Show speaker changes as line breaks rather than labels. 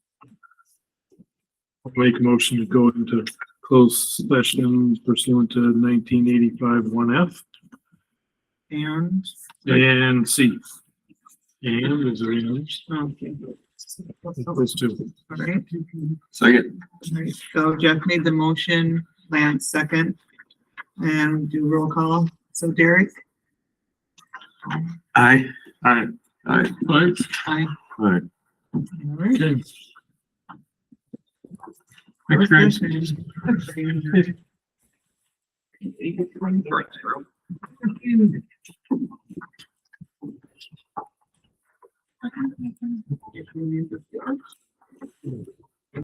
I'll Make a motion to go into closed session pursuant to nineteen eighty-five one F
And,
and C. And is there any others?
okay.
Those two.
Alright,
Second.
alright. So Jeff made the motion, Lance second, and do roll call. So Derek?
Aye.
Alright.
Aye.
Alright,
Aye.
Aye.
Alright.
okay.
Thanks, guys.